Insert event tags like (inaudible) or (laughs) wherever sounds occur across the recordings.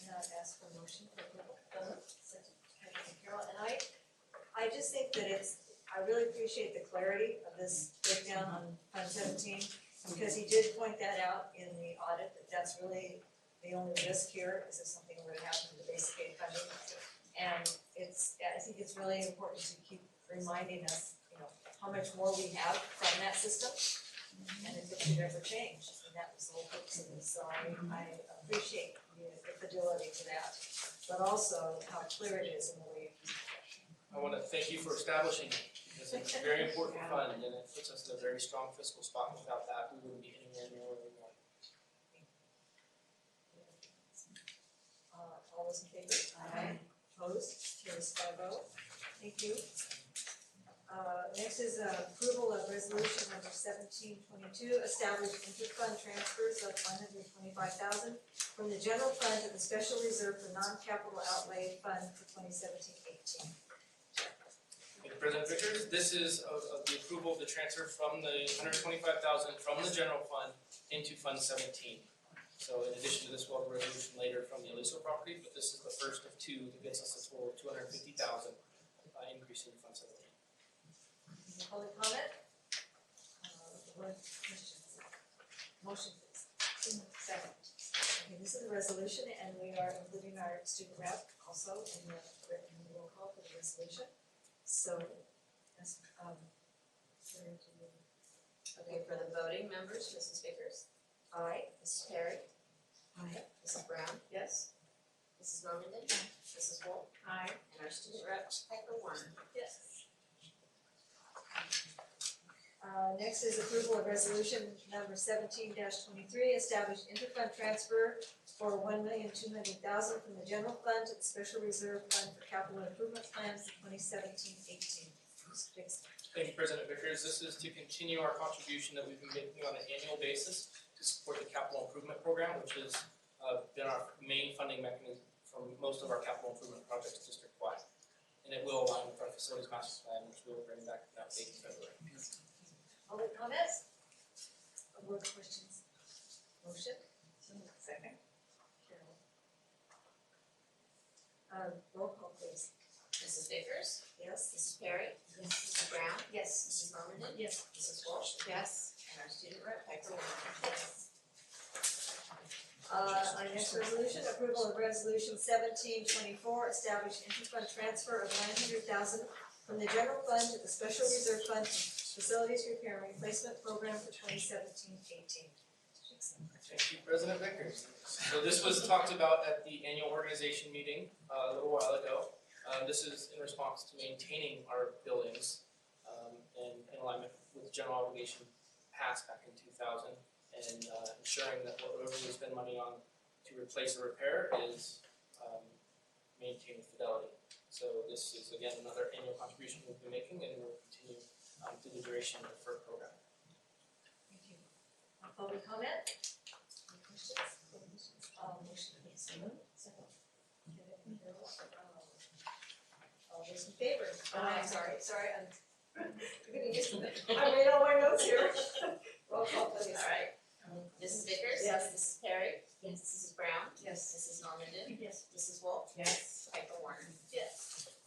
for a motion for approval. Donovan, second, Anderson, Carol, and I, I just think that it's, I really appreciate the clarity of this breakdown on Fund Seventeen, because he did point that out in the audit, that that's really the only risk here, is if something were to happen to basic aid funding. And it's, I think it's really important to keep reminding us, you know, how much more we have from that system and if it should ever change, and that was the whole purpose of this, so I I appreciate the fidelity to that, but also how clear it is in the way. I wanna thank you for establishing it, because it's a very important fund, and it puts us in a very strong fiscal spot. Without that, we wouldn't be anywhere near where we are. Uh, all those in favor? Aye. Opposed, carries five oh, thank you. Uh, next is uh, approval of resolution number seventeen twenty-two, establish inter-fund transfers of one hundred twenty-five thousand from the general fund to the special reserve for non-capital outlay fund for 2017-18. Thank you, President Vickers, this is of, of the approval of the transfer from the hundred twenty-five thousand from the general fund into Fund seventeen. So in addition to this, we'll have a resolution later from the Aliso property, but this is the first of two that gets us a total of two hundred fifty thousand, uh, increase in Fund seventeen. Any public comment? Uh, board questions? Motion please. Second. Okay, this is a resolution and we are including our student rep also in the, in the roll call for the resolution. So, that's, um, Sarah, do you? Okay, for the voting members, Mrs. Vickers, Aye. Mrs. Perry, Aye. Mrs. Brown, Yes. Mrs. Normandin, Mrs. Wolf, Aye. and our student rep, Piper Warren. Yes. Uh, next is approval of resolution number seventeen twenty-three, establish interfund transfer for one million two hundred thousand from the general fund to the special reserve fund for capital improvement plans for 2017-18. Mr. Dixon. Thank you, President Vickers. This is to continue our contribution that we've been making on an annual basis to support the capital improvement program, which has uh, been our main funding mechanism for most of our capital improvement projects district-wide. And it will align with our facilities master plan, which we will bring back an update in February. Public comments? Or board questions? Motion? Second. Carol. Uh, roll call please. Mrs. Vickers, Yes? Mrs. Perry, Mrs. Brown, Yes. Mrs. Normandin, Yes. Mrs. Wolf. Yes. And our student rep, Piper Warren. Uh, our next resolution, approval of resolution seventeen twenty-four, establish interfund transfer of nine hundred thousand from the general fund to the special reserve fund for facilities repair and replacement program for 2017-18. Thank you, President Vickers. So this was talked about at the annual organization meeting uh, a little while ago. Uh, This is in response to maintaining our buildings um, and in alignment with general obligation passed back in two thousand and uh, ensuring that whatever we spend money on to replace or repair is um, maintained fidelity. So this is again another annual contribution we've been making and will continue um, through the duration of the FERC program. Thank you. Uh, Public comment? Any questions? Uh, motion please. Second. Kenneth, Carol, uh, All those in favor? Aye. I'm sorry, sorry, I'm, (laughs) I'm getting used to it. I made all my notes here. (laughs) Roll call please. Alright, Mrs. Vickers. Yes. Mrs. Perry. Yes. Mrs. Brown, Yes. Mrs. Normandin, Yes. Mrs. Wolf. Yes. Piper Warren. (laughs) Yes. (laughs)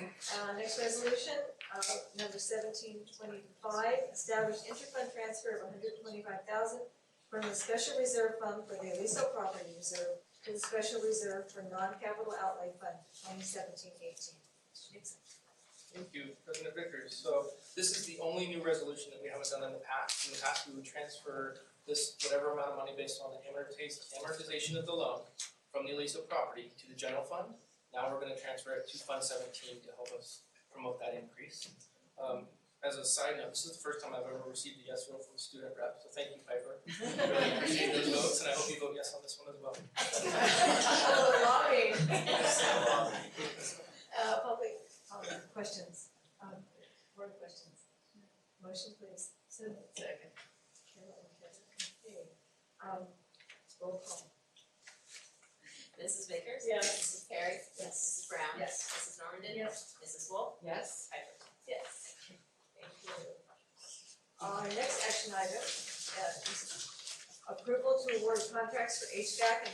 Uh, next resolution, uh, number seventeen twenty-five, establish interfund transfer of hundred twenty-five thousand from the special reserve fund for the Aliso property reserve to the special reserve for non-capital outlay fund for 2017-18. Mr. Dixon. Thank you, President Vickers. So this is the only new resolution that we haven't done in the past. In the past, we would transfer this whatever amount of money based on the amortiz- amortization of the loan from the Aliso property to the general fund. Now we're gonna transfer it to Fund Seventeen to help us promote that increase. Um, as a side note, this is the first time I've ever received a yes vote from a student rep, so thank you, Piper. I Really appreciate those votes, and I hope you vote yes on this one as well. Oh, lobbying. (laughs) Um, Uh, public, comment, questions, um, board questions? Motion please. So, Second. Carol and Kevin, okay, um, roll call. Mrs. Vickers. Yes. Mrs. Perry. Mrs. Brown. Yes. Mrs. Normandin. Yes. Mrs. Wolf. Yes. Piper. Yes. Thank you. Our uh, next action item uh, is approval to award contracts for HVAC and